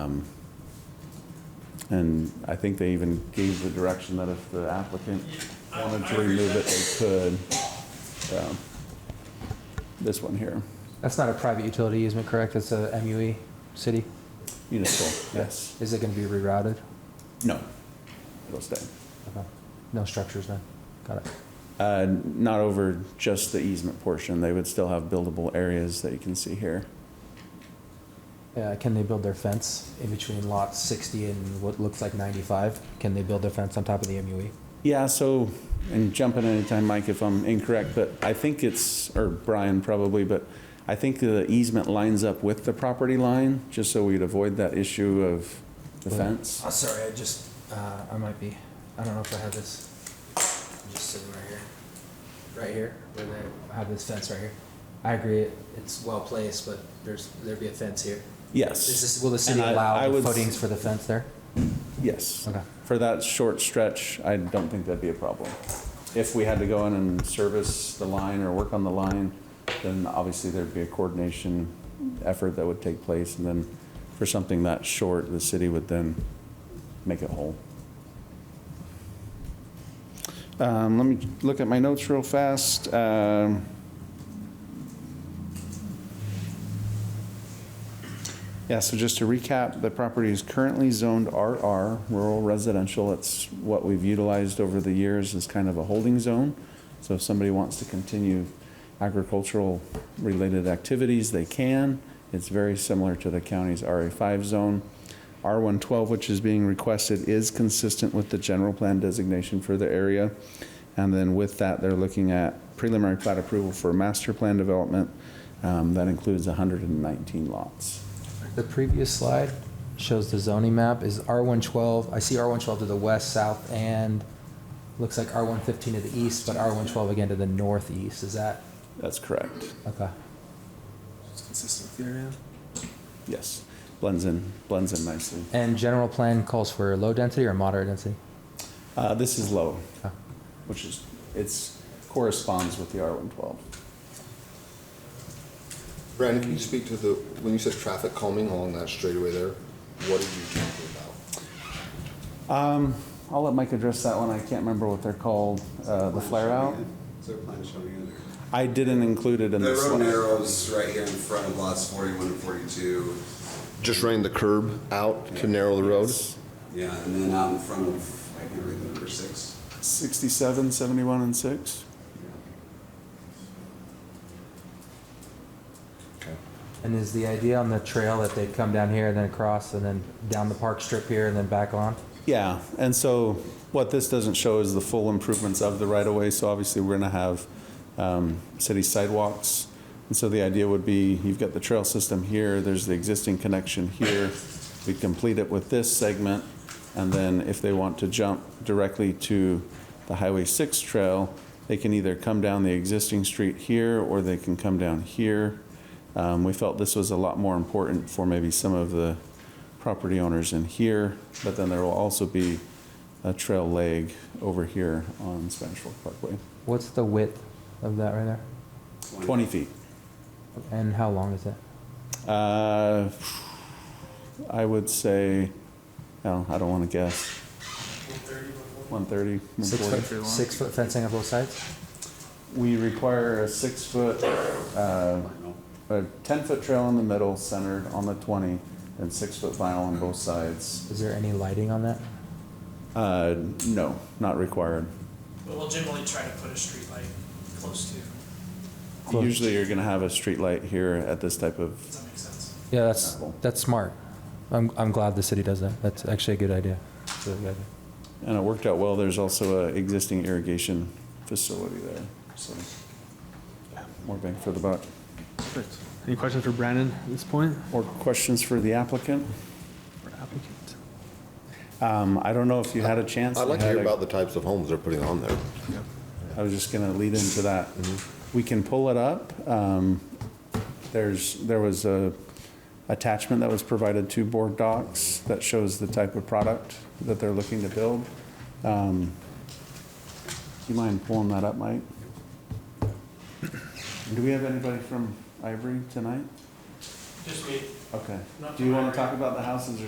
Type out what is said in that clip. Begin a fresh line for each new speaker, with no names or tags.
Um, And I think they even gave the direction that if the applicant wanted to remove it, they could. Um, This one here,
That's not a private utility easement, correct? It's a MUE city?
Unisol, yes.
Is it going to be rerouted?
No, it'll stay.
Okay. No structures then? Got it.
Uh, Not over just the easement portion, they would still have buildable areas that you can see here.
Uh, Can they build their fence in between lot 60 and what looks like 95? Can they build their fence on top of the E? MUE?
Yeah, so, and jump in anytime, Mike, if I'm incorrect, but I think it's, or Brian probably, but I think the easement lines up with the property line, just so we'd avoid that issue of the fence.
sorry, I just, uh, I might be, I don't know if I have this. Just sitting right here. Right here, where they have this fence right here. I agree, it's well placed, but there's, there'd be a fence here.
Yes,
will the city
And I- I
allow the
would s-
footings for the fence there?
yes.
Okay.
For that short stretch, I don't think that'd be a problem. If we had to go in and service the line or work on the line, then obviously there'd be a coordination effort that would take place. And then for something that short, the city would then make it whole. Um, Let me look at my notes real fast. Um, Yeah, so just to recap, the property is currently zoned RR, rural residential. It's what we've utilized over the years as kind of a holding zone. So if somebody wants to continue agricultural-related activities, they can. It's very similar to the county's RA5 zone. R112, which is being requested, is consistent with the general plan designation for the area. And then with that, they're looking at preliminary plat approval for master plan development. Um, That includes 119 lots.
The previous slide shows the zoning map is R112, I see R112 to the west, south, and looks like R115 to the east, but R112 again to the northeast, is that,
That's correct.
okay.
It's consistent with the area.
Yes. Blends in, blends in nicely.
And general plan calls for low density or moderate density?
Uh, This is low,
Okay.
which is, it's corresponds with the R112.
Brandon, can you speak to the, when you said traffic calming along that straightaway there, what are you talking about?
Um, I'll let Mike address that one. I can't remember what they're called, uh, the flare out.
Is there a plan showing you there?
I didn't include it in
The
the
road
slide.
narrows right here in front of lots 41 and 42.
Just running the curb out to narrow the road?
Yeah, and then out in front of, I can't read the number six.
67, 71, and 6.
And is the idea on the trail that they'd come down here and then across and then down the park strip here and then back on?
Yeah, and so what this doesn't show is the full improvements of the right-of-way, so obviously we're gonna have um, city sidewalks. And so the idea would be, you've got the trail system here, there's the existing connection here. We complete it with this segment, and then if they want to jump directly to the Highway 6 trail, they can either come down the existing street here, or they can come down here. Um, We felt this was a lot more important for maybe some of the property owners in here, but then there will also be a trail leg over here on Spanish Fork Parkway.
What's the width of that right there?
20 feet.
And how long is it?
Uh, I would say, no, I don't want to guess. 130,
Six
140.
foot, six foot fencing on both sides?
We require a six-foot, uh, a 10-foot trail in the middle, centered on the 20, and six-foot vinyl on both sides.
Is there any lighting on that?
Uh, No, not required.
But we'll generally try to put a street light close to, if
Close.
Usually, you're going to have a street light here at this type of
that makes sense.
Yeah, that's,
Apple.
that's smart. I'm, I'm glad the city does that. That's actually a good idea. It's a really good idea.
And it worked out well. There's also an existing irrigation facility there, so more bang for the buck.
Perfect. Any questions for Brandon at this point
More questions for the applicant?
or applicant?
Um, I don't know if you had a chance.
I'd like to
had
hear
a-
about the types of homes they're putting on there.
I was just going to lead into that. We can pull it up. Um, There's, there was a attachment that was provided to board docs that shows the type of product that they're looking to build. Um, Do you mind pulling that up, Mike? Do we have anybody from Ivory tonight?
Just me,
Okay.
Not
Do you
from
want to talk
Ivory.
about the houses or